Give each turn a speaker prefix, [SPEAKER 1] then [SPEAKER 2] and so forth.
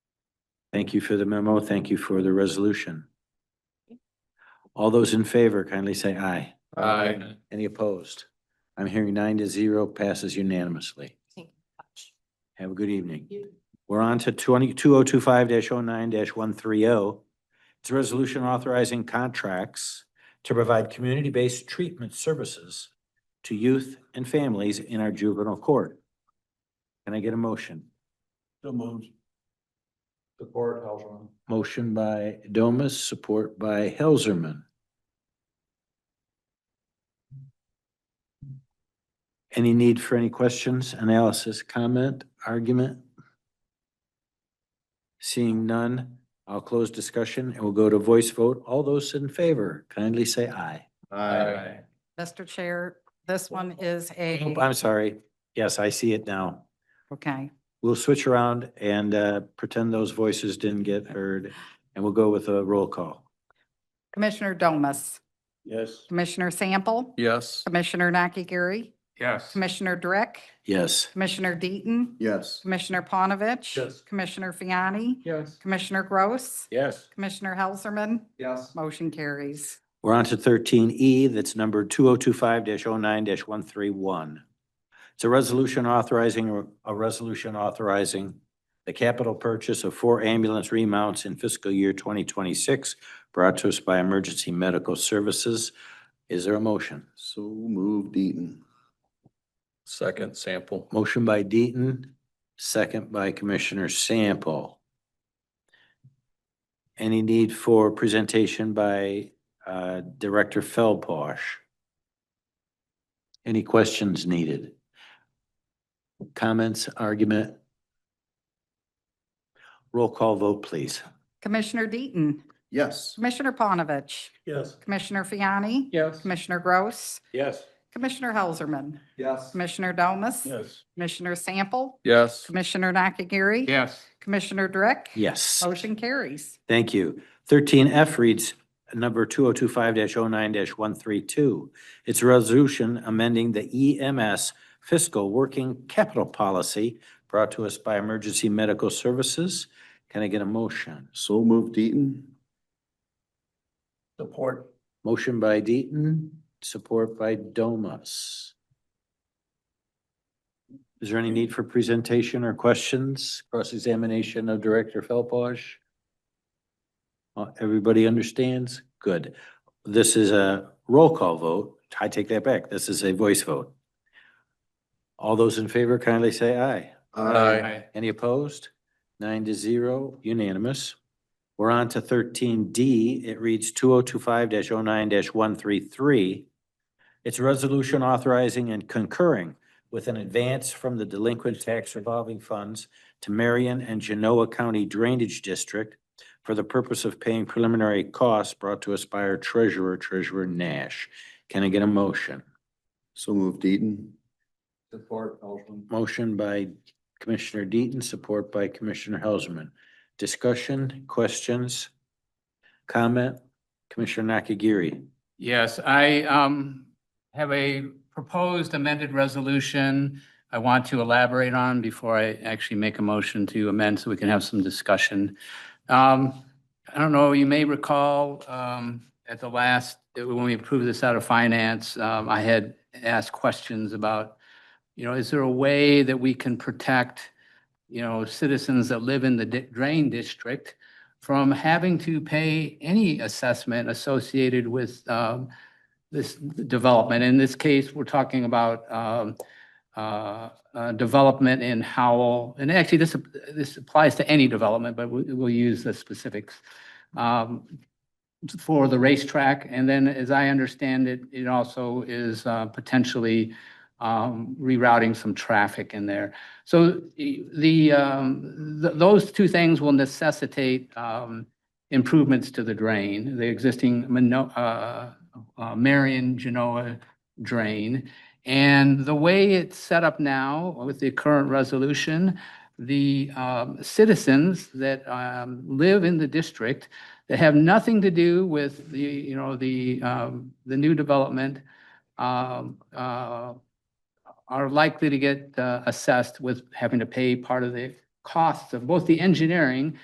[SPEAKER 1] Thank you for the memo. Thank you for the resolution. All those in favor kindly say aye.
[SPEAKER 2] Aye.
[SPEAKER 1] Any opposed? I'm hearing nine to zero passes unanimously.
[SPEAKER 3] Thank you much.
[SPEAKER 1] Have a good evening.
[SPEAKER 3] You-
[SPEAKER 1] We're on to twenty, two oh two five dash oh nine dash one three oh. It's a resolution authorizing contracts to provide community-based treatment services to youth and families in our juvenile court. Can I get a motion?
[SPEAKER 2] So moved. Support, Helserman.
[SPEAKER 1] Motion by Domas, support by Helserman. Any need for any questions, analysis, comment, argument? Seeing none, I'll close discussion and we'll go to voice vote. All those in favor kindly say aye.
[SPEAKER 2] Aye.
[SPEAKER 3] Mr. Chair, this one is
[SPEAKER 1] Oh,
[SPEAKER 3] a,
[SPEAKER 1] I'm sorry. Yes, I see it now.
[SPEAKER 3] okay,
[SPEAKER 1] We'll switch around and uh, pretend those voices didn't get heard and we'll go with a roll call.
[SPEAKER 3] Commissioner Domas,
[SPEAKER 2] Yes.
[SPEAKER 3] Commissioner Sample,
[SPEAKER 2] Yes.
[SPEAKER 3] Commissioner Nakagiri,
[SPEAKER 2] Yes.
[SPEAKER 3] Commissioner Drick,
[SPEAKER 1] Yes.
[SPEAKER 3] Commissioner Deaton,
[SPEAKER 2] Yes.
[SPEAKER 3] Commissioner Panovich.
[SPEAKER 2] Yes.
[SPEAKER 3] Commissioner Fiani,
[SPEAKER 2] Yes.
[SPEAKER 3] Commissioner Gross,
[SPEAKER 2] Yes.
[SPEAKER 3] Commissioner Helserman,
[SPEAKER 2] Yes.
[SPEAKER 3] motion carries.
[SPEAKER 1] We're on to thirteen E, that's number two oh two five 9 one three one. It's a resolution authorizing, a resolution authorizing the capital purchase of four ambulance remounts in fiscal year twenty twenty-six brought to us by Emergency Medical Services. Is there a motion?
[SPEAKER 4] So moved Eaton.
[SPEAKER 2] Second sample.
[SPEAKER 1] Motion by Deaton, second by Commissioner Sample. Any need for presentation by uh, Director Feldposh? Any questions needed? Comments, argument? Roll call vote, please.
[SPEAKER 3] Commissioner Deaton,
[SPEAKER 4] Yes.
[SPEAKER 3] Commissioner Panovich,
[SPEAKER 2] Yes.
[SPEAKER 3] Commissioner Fiani,
[SPEAKER 2] Yes.
[SPEAKER 3] Commissioner Gross,
[SPEAKER 2] Yes.
[SPEAKER 3] Commissioner Helserman,
[SPEAKER 2] Yes.
[SPEAKER 3] Commissioner Domas,
[SPEAKER 2] Yes.
[SPEAKER 3] Commissioner Sample,
[SPEAKER 2] Yes.
[SPEAKER 3] Commissioner Nakagiri.
[SPEAKER 2] Yes.
[SPEAKER 3] Commissioner Drick.
[SPEAKER 1] Yes.
[SPEAKER 3] Motion carries.
[SPEAKER 1] Thank you. Thirteen F reads number two oh two five 9 one three two. It's a resolution amending the EMS fiscal working capital policy brought to us by Emergency Medical Services. Can I get a motion?
[SPEAKER 4] So moved Eaton.
[SPEAKER 2] Support.
[SPEAKER 1] Motion by Deaton, support by Domas. Is there any need for presentation or questions, cross-examination of Director Felposh? Uh, Everybody understands? Good. This is a roll call vote. I take that back. This is a voice vote. All those in favor kindly say aye. Any opposed? Nine to zero, unanimous. We're on to thirteen D. It reads two oh two five 9 one three three. It's a resolution authorizing and concurring with an advance from the delinquent tax revolving funds to Marion and Genoa County Drainage District for the purpose of paying preliminary costs brought to us by our treasurer, Treasurer Nash. Can I get a motion?
[SPEAKER 4] So moved Eaton.
[SPEAKER 2] Support, Helserman.
[SPEAKER 1] Motion by Commissioner Deaton, support by Commissioner Helserman. Discussion, questions, comment? Commissioner Nakagiri.
[SPEAKER 5] Yes, I um have a proposed amended resolution I want to elaborate on before I actually make a motion to amend so we can have some discussion. Um, I don't know, you may recall um at the last, when we approved this out of finance, um, I had asked questions about, you know, is there a way that we can protect, you know, citizens that live in the di- drain district from having to pay any assessment associated with um, this development. In this case, we're talking about um, uh, uh, development in Howell, and actually, this, this applies to any development, but we- we'll use the specifics um, for the racetrack. And then, as I understand it, it also is uh, potentially um, rerouting some traffic in there. So the- the, um, th- those two things will necessitate um, improvements to the drain, the existing Mano- uh, uh, Marion Genoa drain. And the way it's set up now with the current resolution, the um, citizens that um, live in the district that have nothing to do with the, you know, the, um, the new development um, uh, are likely to get uh, assessed with having to pay part of the costs of both the engineering